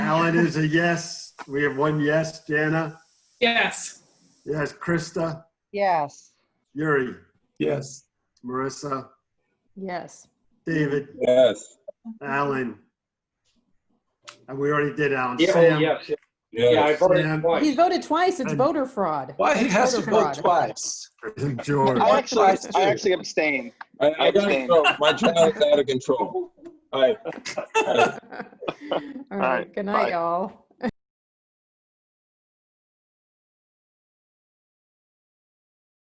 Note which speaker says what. Speaker 1: Ellen is a yes. We have one yes. Jana?
Speaker 2: Yes.
Speaker 1: Yes. Krista?
Speaker 3: Yes.
Speaker 1: Yuri?
Speaker 4: Yes.
Speaker 1: Marissa?
Speaker 3: Yes.
Speaker 1: David?
Speaker 4: Yes.
Speaker 1: Alan? And we already did Alan.
Speaker 5: Yeah, oh,
Speaker 1: Sam?
Speaker 5: yes, yeah, I
Speaker 1: Sam.
Speaker 5: voted
Speaker 3: He's
Speaker 5: twice.
Speaker 3: voted twice. It's
Speaker 1: And-
Speaker 3: voter fraud.
Speaker 4: Why he has to
Speaker 3: Voter
Speaker 4: vote
Speaker 3: fraud.
Speaker 4: twice?
Speaker 1: George?
Speaker 6: I actually, I actually abstain.
Speaker 7: I, I gotta
Speaker 6: Abstain.
Speaker 7: go. My channel is out of control. All right.
Speaker 3: All right, good
Speaker 6: bye.
Speaker 3: night, y'all.